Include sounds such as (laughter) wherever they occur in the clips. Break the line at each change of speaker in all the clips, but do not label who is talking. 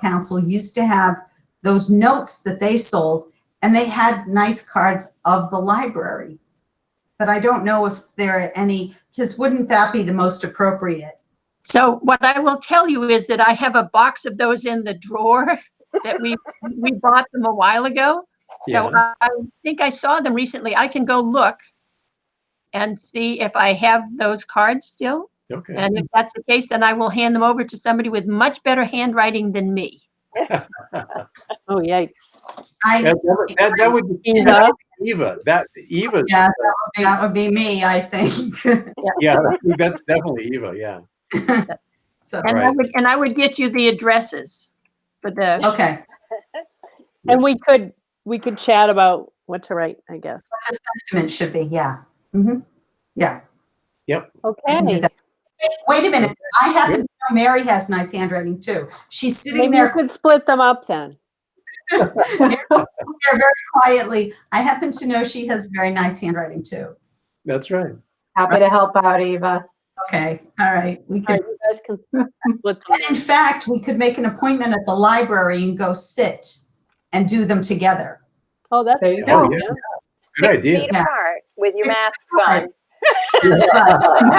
council used to have those notes that they sold, and they had nice cards of the library. But I don't know if there are any, because wouldn't that be the most appropriate?
So what I will tell you is that I have a box of those in the drawer that we, we bought them a while ago. So I I think I saw them recently. I can go look and see if I have those cards still.
Okay.
And if that's the case, then I will hand them over to somebody with much better handwriting than me.
Oh, yikes.
I,
That, that- that- that would be
Eva,
Eva. That Eva.
yeah, that would be- that would be me, I think. (laughs)
Yeah, that's definitely Eva. Yeah.
So,
And I
Right.
would, and I would get you the addresses for the,
okay.
and we could, we could chat about what to write, I guess.
What the sentiment should be, yeah. Mhm. Yeah. I can do
Okay.
that. Wait a minute, I happen to know Mary has nice handwriting too. She's sitting
Maybe you
there
could split them up then.
there very quietly. I happen to know she has very nice handwriting too.
That's right.
Happy to help out, Eva.
Okay, all right, we
All
could.
right, you guys can split them.
And in fact, we could make an appointment at the library and go sit and do them together.
Oh, that's.
There you
Oh,
go.
yeah.
yeah.
Good
six
idea.
feet
Yeah.
apart with your
Six
masks
feet apart.
on.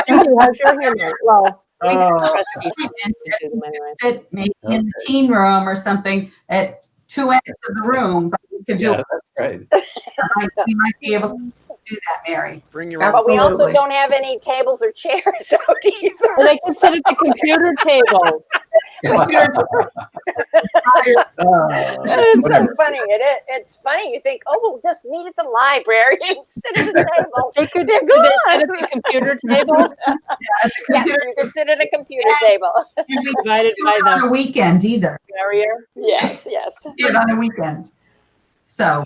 Andy, how's your hand? Well,
Oh,
Ah,
trustee
Appointment,
issues, am I right?
Sit maybe in the teen room or something at two ends of the room, but we could do,
yeah,
it.
that's right.
(laughs)
Like, we might be able to do that, Mary.
Bring your own.
But we also
Absolutely.
don't have any tables or chairs (laughs) out
Or
either.
they could sit at the computer table.
Uh,
(laughs) It's so
whatever.
funny. It, it, it's funny. You think, oh, we'll just meet at the library and (laughs) sit at the (laughs) table.
They could,
They're
could they sit at
gone.
the computer table
At the
Yes,
computer,
you can sit at a computer table.
and
(laughs)
we could
provided
do
by
it On
the
a weekend either,
barrier?
Yes, yes.
do it on a weekend. So,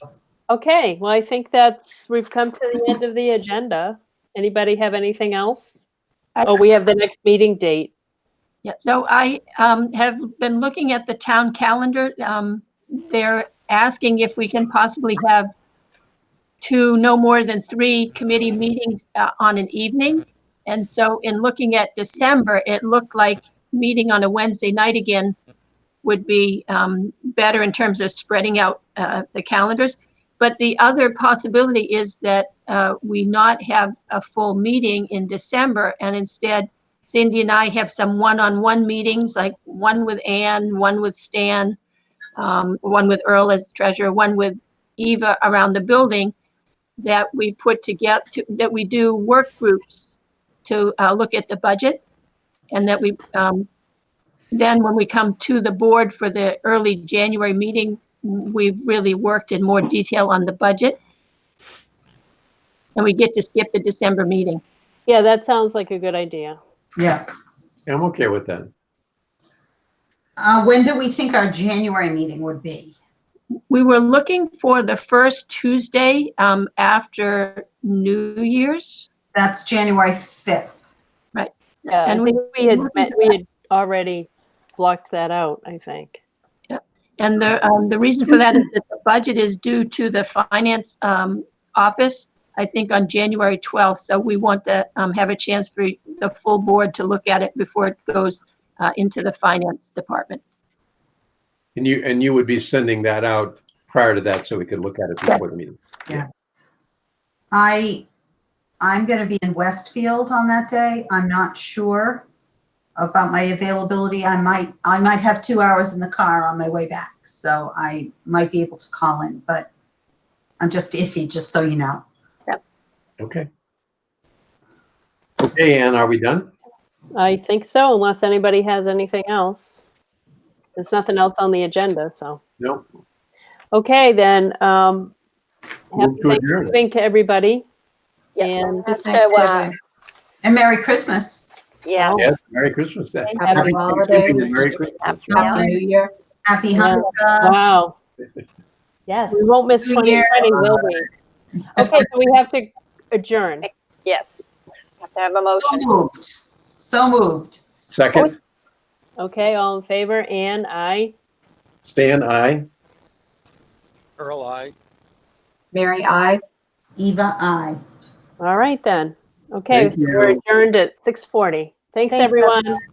Okay, well, I think that's, we've come to the end of the agenda. Anybody have anything else?
I-
Oh, we have the next meeting date.
yeah, so I, um, have been looking at the town calendar. Um, they're asking if we can possibly have two, no more than three committee meetings, uh, on an evening. And so in looking at December, it looked like meeting on a Wednesday night again would be, um, better in terms of spreading out, uh, the calendars. But the other possibility is that, uh, we not have a full meeting in December and instead Cindy and I have some one-on-one meetings, like one with Ann, one with Stan, um, one with Earl as treasurer, one with Eva around the building that we put together, that we do work groups to uh, look at the budget. And that we, um, then when we come to the board for the early January meeting, we've really worked in more detail on the budget. And we get to skip the December meeting.
Yeah, that sounds like a good idea.
yeah.
I'm okay with that.
Uh, when do we think our January meeting would be?
We were looking for the first Tuesday um, after New Year's.
That's January 5th.
Yeah, I
And
think we had, met- we had already blocked that out, I think.
And the, um, the reason for that is that the budget is due to the finance um, office, I think on January 12th. So we want to um, have a chance for the full board to look at it before it goes uh, into the finance department.
And you, and you would be sending that out prior to that so we could look at it before the meeting.
I, I'm going to be in Westfield on that day. I'm not sure about my availability. I might, I might have two hours in the car on my way back, so I might be able to call in, but I'm just iffy, just so you know.
Okay. Okay, Ann, are we done?
I think so, unless anybody has anything else. There's nothing else on the agenda, so.
No.
Okay, then, um, happy
Move to adjourn.
Thanksgiving to everybody.
Yes.
And
Has to, uh,
And Merry Christmas.
yes.
Yes, Merry Christmas then.
Happy
Thanksgiving
holidays.
and Merry Christmas.
Happy New Year.
Happy
Yeah.
Hanukkah.
Wow. Yes. We won't miss
Uh, New Year.
2020, will we? Okay, so we have to adjourn.
Yes. Have to have a
So
motion.
moved. So moved.
Oh,
Second,
Okay, all in favor? Anne, aye.
Stan, aye.
Earl, I.
Mary, I.
Eva, I.
All right then. Okay,
Thank
so we're
you.
adjourned at 6:40. Thanks, everyone.